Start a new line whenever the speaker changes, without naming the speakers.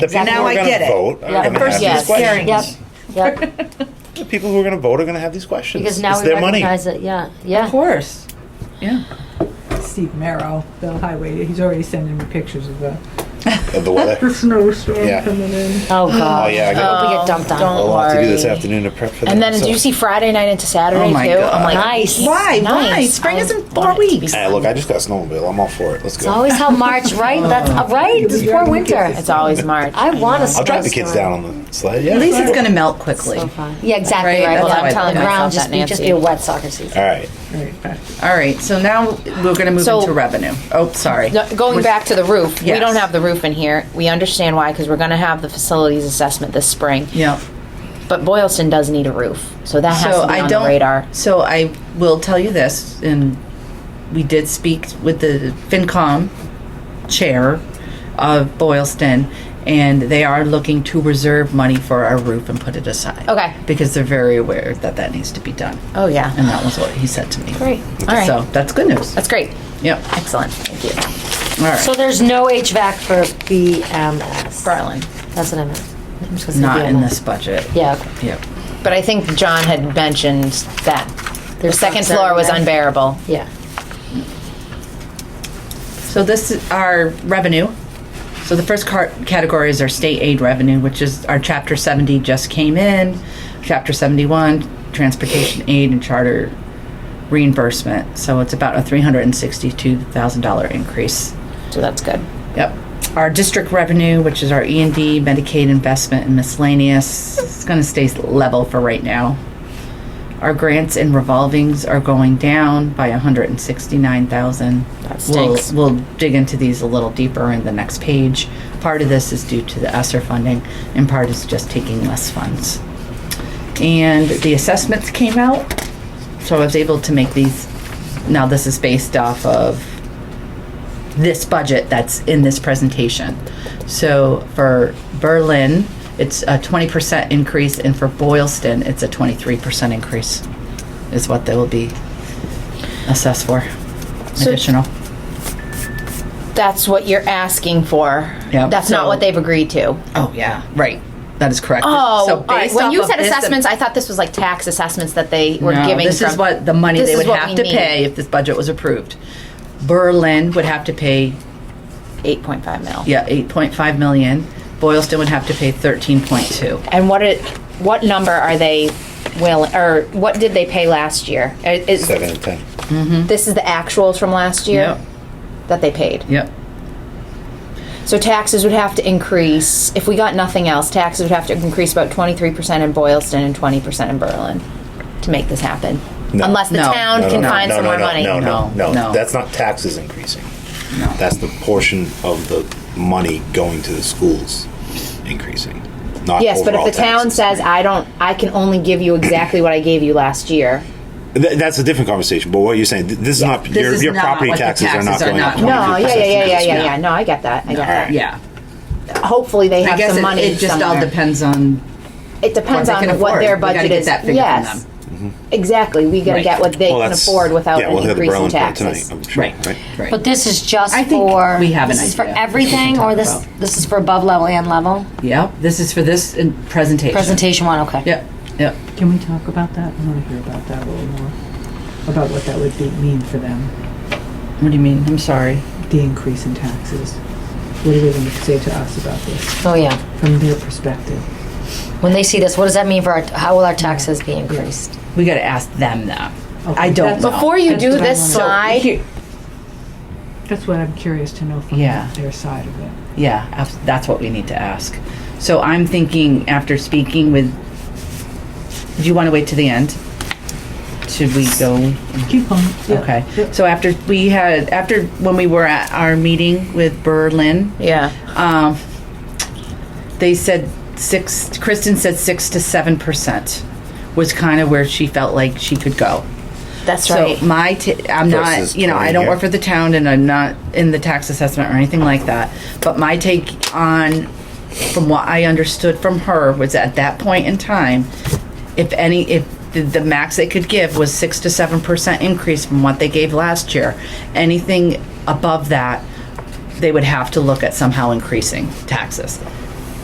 The people
Exactly.
who
Now
are
I
going
get
to
it.
vote
Yeah.
are going
The
to have
first
these
yes.
questions.
Yep. Yep.
The people who are going to vote are going to have these questions.
Because now
it's
we
their money.
recognize it. Yeah.
Of
Yeah.
course. Yeah.
Steve Merrill, the highway, he's already sending me pictures of the,
Of the weather.
the snowstorm
Yeah.
coming in.
Oh God.
Oh, yeah, I got-
I hope we get dumped on.
a
Don't
lot to do this
worry.
afternoon to prep for that.
And then,
so-
do you see Friday night into Saturday
Oh my
too?
God.
I'm like,
Nice.
Why? Why?
Nice.
Spring
I
is in four
want it to be
weeks.
Hey, look, I just got a snowmobile. I'm all for it. Let's
It's
go.
always how March, right? That's
Oh.
uh, right. It's before winter.
It's always March.
I want to.
I'll drive the kids down on the sled. Yeah.
At least it's
sure.
going to melt quickly.
So fun. Yeah, exactly
Right?
right.
That's
Well,
how I
I'm telling
put
you, ground
myself,
just
that
be, just
Nancy.
be a wet soccer season.
All right.
All right. So now we're going to move
So-
into revenue. Oh, sorry.
No, going back to the roof, we
Yes.
don't have the roof in here. We understand why because we're going to have the facilities assessment this spring.
Yeah.
But Boylston does need a roof, so that has
So
to be
I
on
don't.
the radar.
So I will tell you this, and we did speak with the FinCom chair of Boylston, and they are looking to reserve money for our roof and put it aside.
Okay.
Because they're very aware that that needs to be done.
Oh yeah,
And that was what he said to me.
great. All right,
So that's good news.
that's great.
Yep.
Excellent. Thank you,
All right.
So there's no HVAC for BMS.
Garland.
That's what I meant. I'm just gonna say
Not in
BMS.
this budget.
Yeah. Okay.
Yep.
But I think John had mentioned that the
There's
second
something
floor was
there.
unbearable.
Yeah.
So this is our revenue. So the first car- category is our state aid revenue, which is our Chapter 70 just came in, Chapter 71 transportation aid and charter reimbursement. So it's about a $362,000 increase.
So that's good.
Yep. Our district revenue, which is our E and D, Medicaid investment, and miscellaneous, it's going to stay level for right now. Our grants and revolvings are going down by 169,000.
That
We'll,
stinks.
we'll dig into these a little deeper in the next page. Part of this is due to the ESSER funding, and part is just taking less funds. And the assessments came out, so I was able to make these. Now this is based off of this budget that's in this presentation. So for Berlin, it's a twenty percent increase, and for Boylston, it's a twenty-three percent increase, is what they will be assessed for,
So-
additional.
That's what you're asking for.
Yeah.
That's
So-
not what they've agreed to.
Oh, yeah, right, that is correct.
Oh,
So
all right.
based
when
off
you
of
said
this-
assessments, I thought this was like tax assessments that they were
No,
giving.
This is
from-
what the money
This
they
is
would
what
have
we
to
need.
pay if this budget was approved. Berlin would have to pay
8.5 mil.
yeah eight point five million. Boylston would have to pay thirteen point two.
And what it, what number are they willing, or what did they pay last year? Uh, Is,
Seven and ten.
this is the actuals from last year that they paid.
Yep.
So taxes would have to increase. If we got nothing else, taxes would have to increase about 23% in Boylston and 20% in Berlin to make this happen.
No.
Unless the
No.
town
No,
can
no,
find
no,
some
no,
more
no,
money.
No, no,
No,
no,
no.
That's not taxes increasing.
No.
That's the portion of the money going to the schools increasing. Not
Yes, but if
overall
the town
taxes.
says, I don't, I can only give you exactly what I gave you last year.
Th- that's a different conversation. But what you're saying, th- this is not your,
is
your
not
property
what the
taxes, are
taxes
not
are
going
not
up.
going
No,
23%
yeah, yeah, yeah, yeah,
this year.
yeah. No, I get that. I get
All
that.
right.
Yeah.
Hopefully they
I
have
guess
some
it,
money.
it just all
somewhere.
depends on
It depends
what they
on
can
what
afford.
their
We gotta
budget
get
is.
that figure from
yes, exactly. We got to
Right.
get what they
Well,
can
that's-
afford without
yeah, we'll
an
hear the
increase in
Berlin bill
taxes.
tonight. I'm sure.
Right.
Right.
Right.
But this is just
I think
for
we have an
this is for
idea.
everything, or this
about.
this is for above level and level
Yep, this is for this in- presentation.
presentation one. Okay.
Yep, yep.
Can we talk about that? I want to hear about that a little more, about what that would be, mean for them,
What do you mean? I'm sorry.
the increase in taxes. What are they going to say to us about this,
Oh yeah.
from their perspective?
When they see this, what does that mean for our? How will our taxes be increased?
We gotta ask them that. I
Okay.
don't
That's-
know.
Before you
That's
do
what I
this
wanna-
slide,
That's what I'm curious to know from
Yeah.
their side of it.
Yeah, abs- that's what we need to ask. So I'm thinking after speaking with, do you wanna wait to the end? Should we go?
Keep going. Yeah.
Mm. Okay.
Yep.
So after we had, after, when we were at our meeting with Berlin,
yeah,
um, they said six. Kristen said six to seven percent was kind of where she felt like she could go.
that's
so
right.
my, t- I'm not,
Versus
you know, I
20
don't
here.
work for the town, and I'm not in the tax assessment or anything like that. But my take on, from what I understood from her, was at that point in time, if any, if the, the max they could give was six to seven percent increase from what they gave last year, anything above that they would have to look at somehow increasing taxes.